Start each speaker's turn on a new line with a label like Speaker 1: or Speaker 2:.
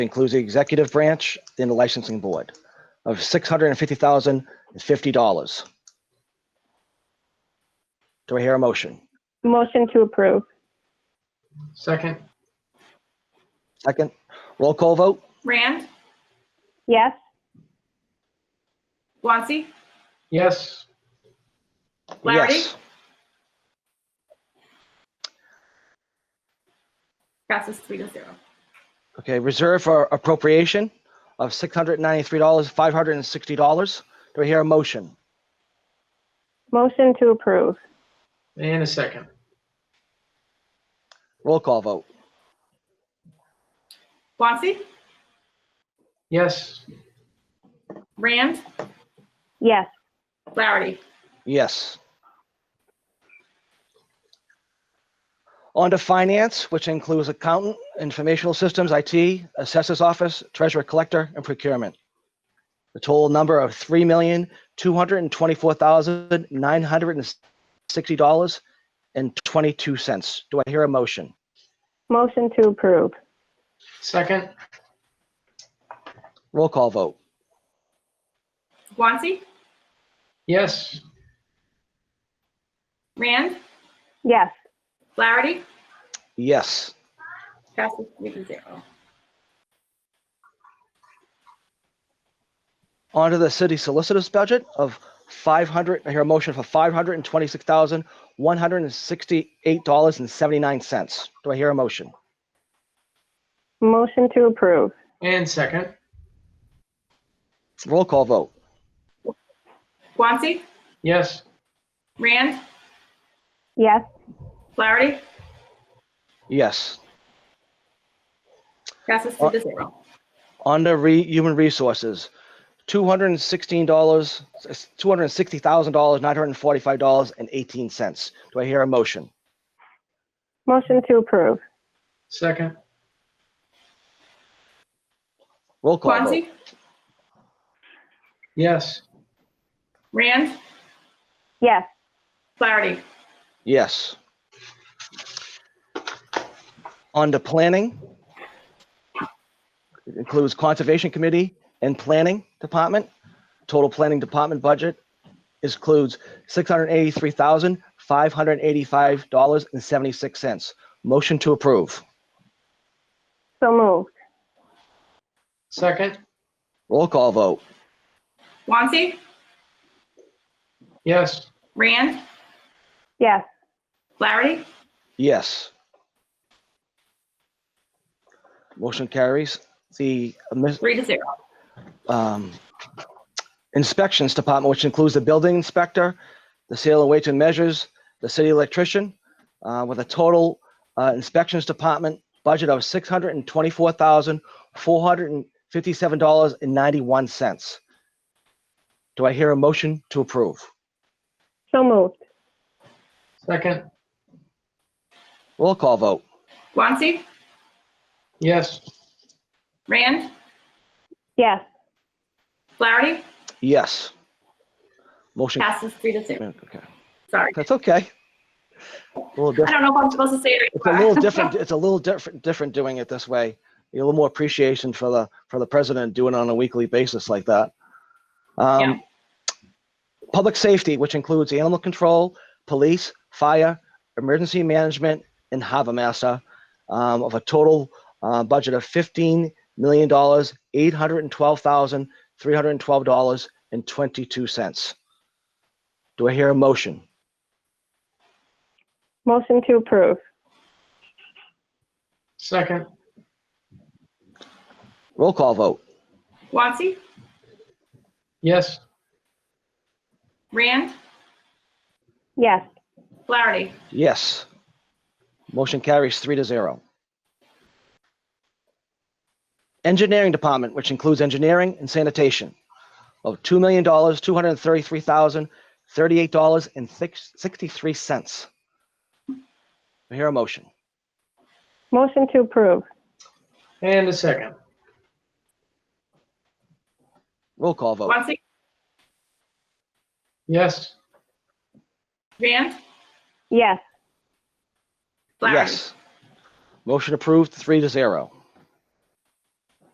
Speaker 1: includes the executive branch and the licensing board of six hundred and fifty thousand and fifty dollars. Do I hear a motion?
Speaker 2: Motion to approve.
Speaker 3: Second,
Speaker 1: Second, roll call vote?
Speaker 4: Rand,
Speaker 2: Yes?
Speaker 4: Guanci,
Speaker 3: yes.
Speaker 4: Larry?
Speaker 1: Yes.
Speaker 4: passes three to zero.
Speaker 1: Okay, reserve for appropriation of six hundred and ninety-three dollars, five hundred and sixty dollars. Do I hear a motion?
Speaker 2: Motion to approve.
Speaker 3: And a second,
Speaker 1: Roll call vote?
Speaker 4: Guanci,
Speaker 3: yes.
Speaker 4: Rand,
Speaker 2: Yes.
Speaker 4: Flaherty,
Speaker 1: Yes. On to finance, which includes accountant, informational systems, IT, assessors office, treasurer collector, and procurement. The total number of three million, two hundred and twenty-four thousand, nine hundred and sixty dollars and twenty-two cents. Do I hear a motion?
Speaker 2: Motion to approve.
Speaker 3: Second,
Speaker 1: Roll call vote.
Speaker 4: Guanci,
Speaker 3: yes.
Speaker 4: Rand,
Speaker 2: Yes.
Speaker 4: Flaherty,
Speaker 1: Yes.
Speaker 4: passes three to zero.
Speaker 1: On to the city solicitor's budget of five hundred, I hear a motion for five hundred and twenty-six thousand, one hundred and sixty-eight dollars and seventy-nine cents. Do I hear a motion?
Speaker 2: Motion to approve.
Speaker 3: And second,
Speaker 1: Roll call vote.
Speaker 4: Guanci,
Speaker 3: yes.
Speaker 4: Rand,
Speaker 2: Yes.
Speaker 4: Flaherty,
Speaker 1: Yes.
Speaker 4: passes three to zero.
Speaker 1: On to re, human resources, two hundred and sixteen dollars, two hundred and sixty thousand dollars, nine hundred and forty-five dollars and eighteen cents. Do I hear a motion?
Speaker 2: Motion to approve.
Speaker 3: Second,
Speaker 1: Roll call vote.
Speaker 4: Guanci,
Speaker 3: yes.
Speaker 4: Rand,
Speaker 2: Yes.
Speaker 4: Flaherty,
Speaker 1: Yes. On to planning. It Includes Conservation Committee and Planning Department. Total Planning Department budget includes six hundred eighty-three thousand, five hundred eighty-five dollars and seventy-six cents. Motion to approve.
Speaker 2: So moved.
Speaker 3: Second,
Speaker 1: Roll call vote.
Speaker 4: Guanci,
Speaker 3: yes.
Speaker 4: Rand,
Speaker 2: Yes.
Speaker 4: Flaherty,
Speaker 1: Yes. Motion carries. The admis-
Speaker 4: three to zero.
Speaker 1: um, inspections department, which includes the building inspector, the sale and weight and measures, the city electrician, uh, with a total uh, inspections department budget of six hundred and twenty-four thousand four hundred and fifty-seven dollars and ninety-one cents. Do I hear a motion to approve?
Speaker 2: So moved.
Speaker 3: Second,
Speaker 1: Roll call vote.
Speaker 4: Guanci,
Speaker 3: yes.
Speaker 4: Rand,
Speaker 2: Yes.
Speaker 4: Flaherty,
Speaker 1: Yes. Motion.
Speaker 4: passes three to zero.
Speaker 1: Okay,
Speaker 4: Sorry.
Speaker 1: that's okay. A little different.
Speaker 4: I don't know if I'm supposed to say it.
Speaker 1: It's a little different. It's a little different, different doing it this way. You get A little more appreciation for the, for the president doing it on a weekly basis like that.
Speaker 4: Yeah.
Speaker 1: Um, public safety, which includes animal control, police, fire, emergency management, and harbor master, um, of a total, uh, budget of fifteen million dollars, eight hundred and twelve thousand, three hundred and twelve dollars and twenty-two cents. Do I hear a motion?
Speaker 2: Motion to approve.
Speaker 3: Second,
Speaker 1: Roll call vote.
Speaker 4: Guanci,
Speaker 3: yes.
Speaker 4: Rand,
Speaker 2: Yes.
Speaker 4: Flaherty,
Speaker 1: Yes. Motion carries three to zero. Engineering Department, which includes engineering and sanitation, of two million dollars, two hundred and thirty-three thousand, thirty-eight dollars and six, sixty-three cents. Hear a motion.
Speaker 2: Motion to approve.
Speaker 3: And a second,
Speaker 1: Roll call vote.
Speaker 4: Guanci,
Speaker 3: yes.
Speaker 4: Rand,
Speaker 2: Yes.
Speaker 4: Flaherty.
Speaker 1: Yes. Motion approved, three to zero.